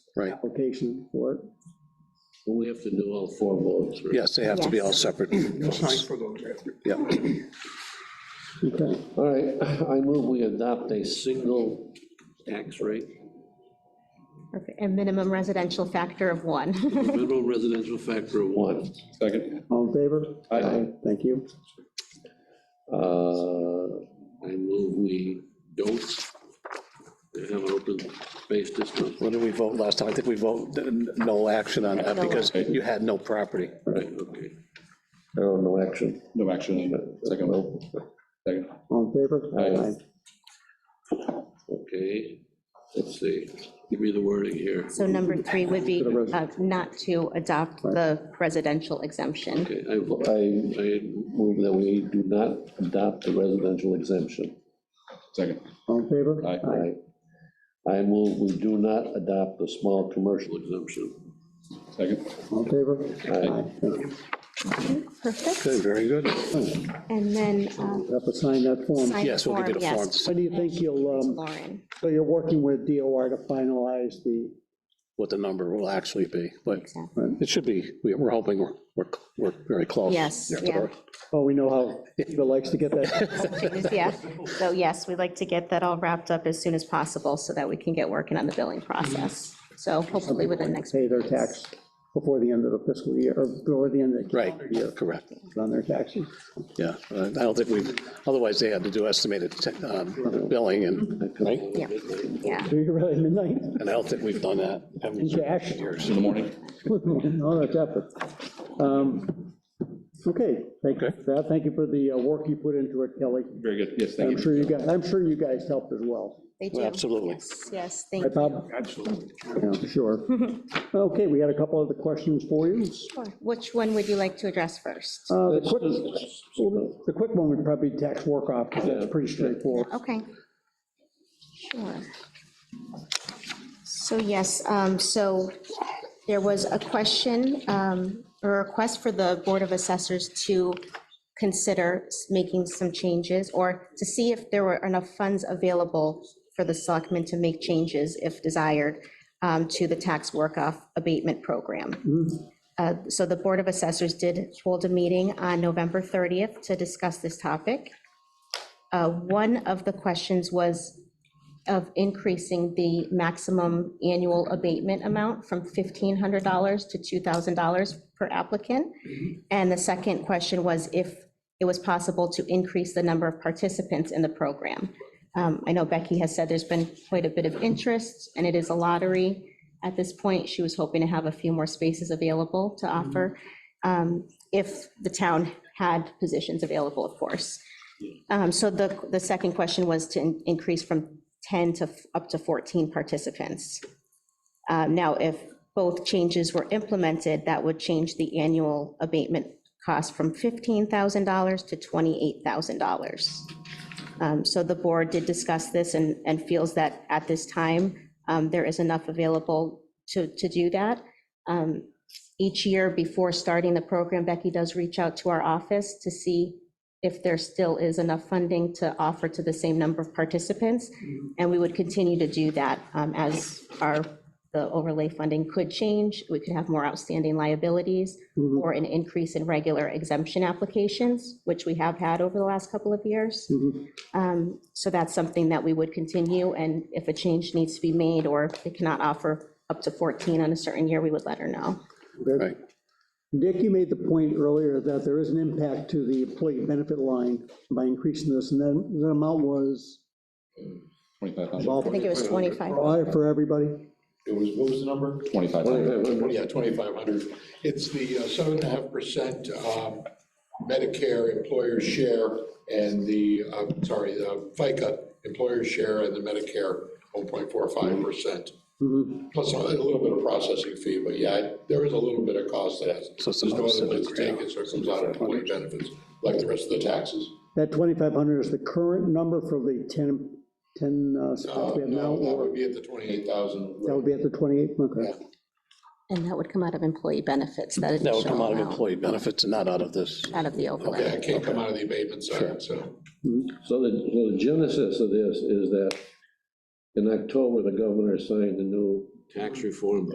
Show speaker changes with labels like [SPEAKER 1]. [SPEAKER 1] Right.
[SPEAKER 2] application for it.
[SPEAKER 3] Well, we have to do all four votes, right?
[SPEAKER 1] Yes, they have to be all
[SPEAKER 4] Yes.
[SPEAKER 1] separate.
[SPEAKER 5] You'll sign for those after.
[SPEAKER 1] Yeah,
[SPEAKER 2] Okay,
[SPEAKER 3] All right, I move we adopt a single tax rate,
[SPEAKER 4] Okay, A minimum residential factor of one.
[SPEAKER 3] minimum residential factor of one.
[SPEAKER 6] Second,
[SPEAKER 2] all in favor?
[SPEAKER 6] Aye.
[SPEAKER 2] Thank you.
[SPEAKER 3] Uh, I move we don't have an open space district.
[SPEAKER 1] what did we vote last time? I think we voted no action on that
[SPEAKER 4] No
[SPEAKER 1] because you had no property.
[SPEAKER 3] Right, okay.
[SPEAKER 6] oh, no action. No action, on it. second, vote. second.
[SPEAKER 2] All in favor?
[SPEAKER 6] Aye.
[SPEAKER 3] Okay, let's see, give me the wording here.
[SPEAKER 4] So number three would be uh, not to adopt the residential exemption.
[SPEAKER 3] Okay, I, I I move that we do not adopt the residential exemption.
[SPEAKER 6] Second,
[SPEAKER 2] All in favor?
[SPEAKER 6] Aye.
[SPEAKER 3] I, I move we do not adopt the small commercial exemption.
[SPEAKER 6] second.
[SPEAKER 2] All in favor?
[SPEAKER 3] Aye.
[SPEAKER 2] Thank you.
[SPEAKER 4] Perfect.
[SPEAKER 1] Good, very good.
[SPEAKER 4] And then uh,
[SPEAKER 2] Have to sign that form.
[SPEAKER 4] sign
[SPEAKER 1] Um, Yes, we'll give you the
[SPEAKER 4] form,
[SPEAKER 1] form.
[SPEAKER 4] yes,
[SPEAKER 2] When do you think you'll, um,
[SPEAKER 4] Lauren.
[SPEAKER 2] so you're working with DOR to finalize the,
[SPEAKER 1] What the number will actually be, but
[SPEAKER 4] Exactly.
[SPEAKER 1] it should be, we- we're hoping we're, we're, we're very close.
[SPEAKER 4] Yes, yeah.
[SPEAKER 2] oh, we know how Eva likes to get that.
[SPEAKER 4] Yeah, so yes, we'd like to get that all wrapped up as soon as possible so that we can get working on the billing process. So hopefully within the next.
[SPEAKER 2] Pay their tax before the end of the fiscal year, or before the end of the
[SPEAKER 1] Right,
[SPEAKER 2] calendar year
[SPEAKER 1] correct,
[SPEAKER 2] on their taxes.
[SPEAKER 1] yeah. Uh, I don't think we, otherwise they had to do estimated um, billing and, right?
[SPEAKER 4] Yeah, yeah.
[SPEAKER 2] So you're right, midnight?
[SPEAKER 1] And I don't think we've done that. haven't
[SPEAKER 2] In
[SPEAKER 1] we?
[SPEAKER 2] cash?
[SPEAKER 1] Years.
[SPEAKER 6] In the morning,
[SPEAKER 2] No, that's effort. Um, Okay, thank you for that. Thank you for the uh, work you put into it, Kelly.
[SPEAKER 6] very good, yes, thank
[SPEAKER 2] I'm
[SPEAKER 6] you.
[SPEAKER 2] sure you guys, I'm sure you guys helped as well.
[SPEAKER 4] They do.
[SPEAKER 1] Absolutely.
[SPEAKER 4] Yes, Yes, thank
[SPEAKER 2] Right,
[SPEAKER 4] you.
[SPEAKER 2] Bob? Absolutely. Sure. Okay, we had a couple other questions for you.
[SPEAKER 4] Sure. Which one would you like to address first?
[SPEAKER 2] Uh, The quick, the quick one would probably be tax work off, because that's pretty straightforward.
[SPEAKER 4] Okay. Sure. So yes, um, so there was a question, um, or a request for the Board of Assessors to consider s- making some changes, or to see if there were enough funds available for the selectmen to make changes, if desired, um, to the tax work-off abatement program. Uh, So the Board of Assessors did hold a meeting on November 30th to discuss this topic. Uh, One of the questions was of increasing the maximum annual abatement amount from $1,500 to $2,000 per applicant. And the second question was if it was possible to increase the number of participants in the program. Um, I know Becky has said there's been quite a bit of interest, and it is a lottery. At this point, she was hoping to have a few more spaces available to offer, um, if the town had positions available, of course. Um, So the, the second question was to in- increase from 10 to f- up to 14 participants. Uh, Now, if both changes were implemented, that would change the annual abatement cost from $15,000 to $28,000. Um, So the board did discuss this and, and feels that at this time, um, there is enough available to, to do that. Um, Each year before starting the program, Becky does reach out to our office to see if there still is enough funding to offer to the same number of participants. And we would continue to do that um, as our, the overlay funding could change. We could have more outstanding liabilities or an increase in regular exemption applications, which we have had over the last couple of years. Um, So that's something that we would continue, and if a change needs to be made, or if they cannot offer up to 14 on a certain year, we would let her know.
[SPEAKER 1] Right.
[SPEAKER 2] Dick, you made the point earlier that there is an impact to the employee benefit line by increasing this, and then the amount was
[SPEAKER 6] Twenty-five thousand,
[SPEAKER 2] well,
[SPEAKER 4] I think it was 25.
[SPEAKER 2] for everybody.
[SPEAKER 5] It was, what was the number?
[SPEAKER 6] twenty-five thousand,
[SPEAKER 5] Yeah, 2,500. It's the uh, 7.5% um, Medicare employer share and the, uh, sorry, the FICA employer share and the Medicare 1.45%. Plus a little bit of processing fee, but yeah, there is a little bit of cost that has,
[SPEAKER 1] So it's
[SPEAKER 5] there's no other
[SPEAKER 1] another
[SPEAKER 5] place to take it, so it comes out of employee benefits, like the rest of the taxes.
[SPEAKER 2] That 2,500 is the curent number for the 10, 10 uh, spots
[SPEAKER 5] Uh,
[SPEAKER 2] we have now,
[SPEAKER 5] No, that would
[SPEAKER 2] or
[SPEAKER 5] be at the 28,000.
[SPEAKER 2] that would be at the 28? Okay.
[SPEAKER 4] And that would come out of employee benefits, that
[SPEAKER 1] That
[SPEAKER 4] additional
[SPEAKER 1] would come out of
[SPEAKER 4] amount,
[SPEAKER 1] employee benefits and not out of this.
[SPEAKER 4] out of the
[SPEAKER 5] Yeah,
[SPEAKER 4] overlay.
[SPEAKER 5] it can't come out of the abatement side, so.
[SPEAKER 3] So the, so the genesis of this is that in October, the governor signed the new
[SPEAKER 5] tax reform